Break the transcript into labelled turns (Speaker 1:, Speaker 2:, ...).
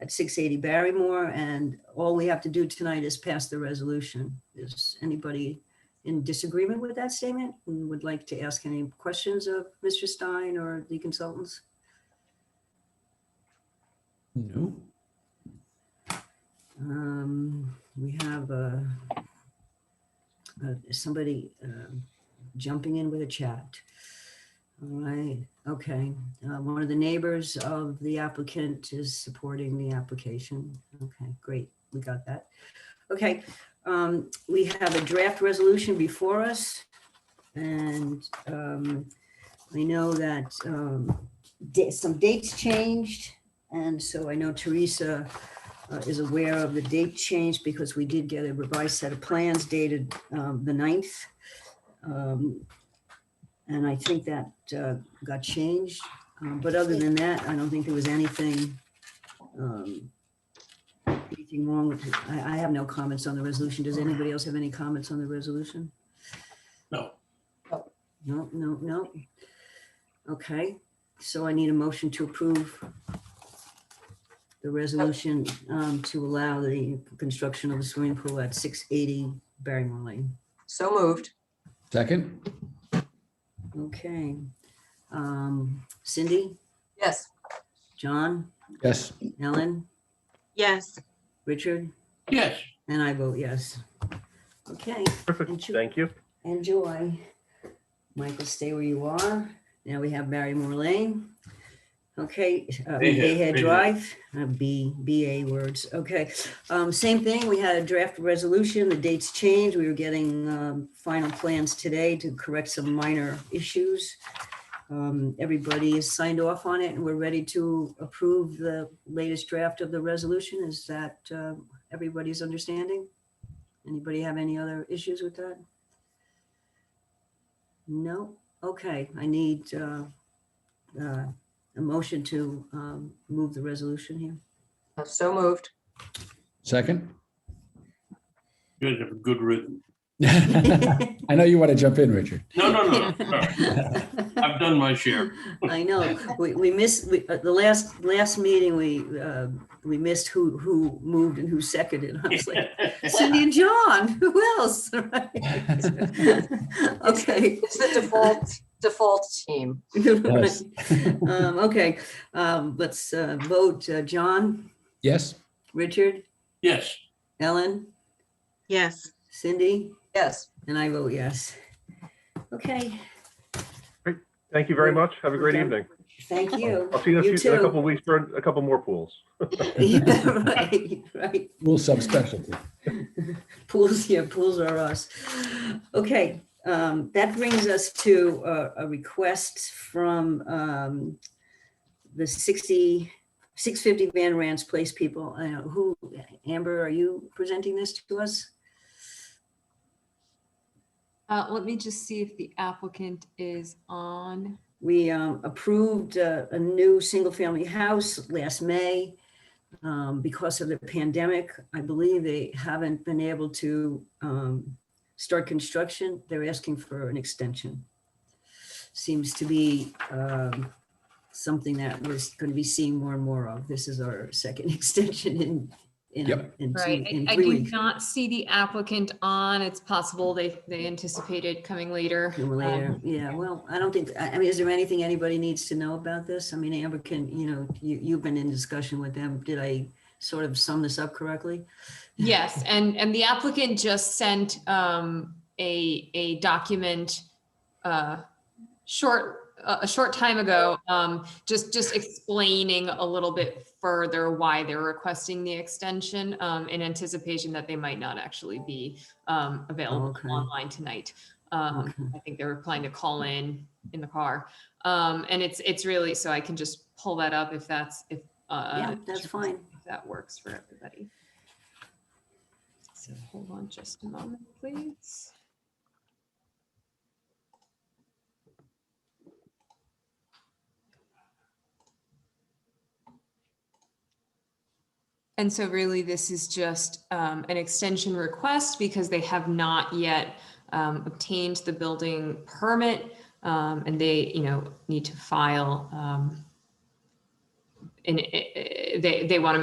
Speaker 1: at 680 Barrymore, and all we have to do tonight is pass the resolution. Is anybody in disagreement with that statement and would like to ask any questions of Mr. Stein or the consultants?
Speaker 2: No.
Speaker 1: Um, We have uh, uh, somebody um, jumping in with a chat. All right, okay. Uh, One of the neighbors of the applicant is supporting the application. Okay, great, we got that. Okay, um, we have a draft resolution before us. And um, I know that um, da- some dates changed. And so I know Teresa uh, is aware of the date change because we did get a revised set of plans dated um, the 9th. Um, And I think that uh, got changed. Um, But other than that, I don't think there was anything, um, anything wrong with it. I, I have no comments on the resolution. Does anybody else have any comments on the resolution?
Speaker 2: No.
Speaker 1: No, no, no. Okay, so I need a motion to approve the resolution um, to allow the construction of a swimming pool at 680 Barrymore Lane.
Speaker 3: So moved.
Speaker 2: Second?
Speaker 1: Okay. Um, Cindy,
Speaker 3: Yes.
Speaker 1: John,
Speaker 2: Yes.
Speaker 1: Ellen,
Speaker 3: Yes.
Speaker 1: Richard,
Speaker 2: Yes.
Speaker 1: and I vote yes. Okay,
Speaker 4: Perfect,
Speaker 1: Enjoy-
Speaker 4: thank you.
Speaker 1: enjoy. Michael, stay where you are. Now we have Barrymore Lane. Okay, uh, Bayhead Drive, uh, B, BA words, okay. Um, Same thing, we had a draft resolution, the dates changed, we were getting um, final plans today to correct some minor issues. Um, Everybody has signed off on it, and we're ready to approve the latest draft of the resolution. Is that uh, everybody's understanding? Anybody have any other issues with that? No? Okay, I need uh, uh, a motion to um, move the resolution here.
Speaker 3: So moved.
Speaker 2: Second?
Speaker 5: You guys have a good rhythm.
Speaker 2: I know you want to jump in, Richard.
Speaker 5: No, no, no. no. All right. I've done my share.
Speaker 1: I know, we, we missed, we, uh, the last, last meeting, we, uh, we missed who, who moved and who seconded. I was like, Cindy and John, who else? Right? Okay.
Speaker 3: It's the default, default team.
Speaker 2: Yes.
Speaker 1: Um, Okay, um, let's uh, vote. Uh, John,
Speaker 2: Yes?
Speaker 1: Richard,
Speaker 5: Yes,
Speaker 1: Ellen,
Speaker 6: Yes,
Speaker 1: Cindy,
Speaker 3: Yes.
Speaker 1: and I vote yes. Okay,
Speaker 4: Thank you very
Speaker 1: Great.
Speaker 4: much. Have a great
Speaker 1: Okay.
Speaker 4: evening.
Speaker 1: thank you.
Speaker 4: I'll see you in a
Speaker 1: You
Speaker 4: few, in a
Speaker 1: too.
Speaker 4: couple of weeks for a couple more pools.
Speaker 1: Yeah, Right, right.
Speaker 2: Rule subspecialty.
Speaker 1: Pools, yeah, pools are us. Okay, um, that brings us to a, a request from, um, the 60, 650 Van Rans Place people, I know, who, Amber, are you presenting this to us?
Speaker 7: Uh, let me just see if the applicant is on.
Speaker 1: We, um, approved a, a new single-family house last May. Um, because of the pandemic, I believe they haven't been able to, um, start construction. They're asking for an extension. Seems to be, um, something that we're going to be seeing more and more of. This is our second extension in, in,
Speaker 2: Yep.
Speaker 1: in two,
Speaker 7: Right,
Speaker 1: in
Speaker 7: I
Speaker 1: three
Speaker 7: do
Speaker 1: weeks.
Speaker 7: not see the applicant on. It's possible they, they anticipated coming later. Um,
Speaker 1: Sooner or later. Um, Yeah, well, I don't think, I I mean, is there anything anybody needs to know about this? I mean, Amber can, you know, you, you've been in discussion with them. Did I sort of sum this up correctly?
Speaker 7: Yes, and, and the applicant just sent um, a, a document uh, short, uh, a a short time ago, um, just, just explaining a little bit further why they're requesting the extension um, in anticipation that they might not actually be um, available
Speaker 1: Okay.
Speaker 7: online tonight. Um, I think they were planning to call in, in the car. Um, And it's, it's really, so I can just pull that up if that's, if. uh,
Speaker 1: Yeah, that's fine.
Speaker 7: if that works for everybody. So hold on just a moment, please. And so really, this is just um, an extension request because they have not yet um, obtained the building permit. um, And they, you know, need to file um, and eh, eh, they, they want to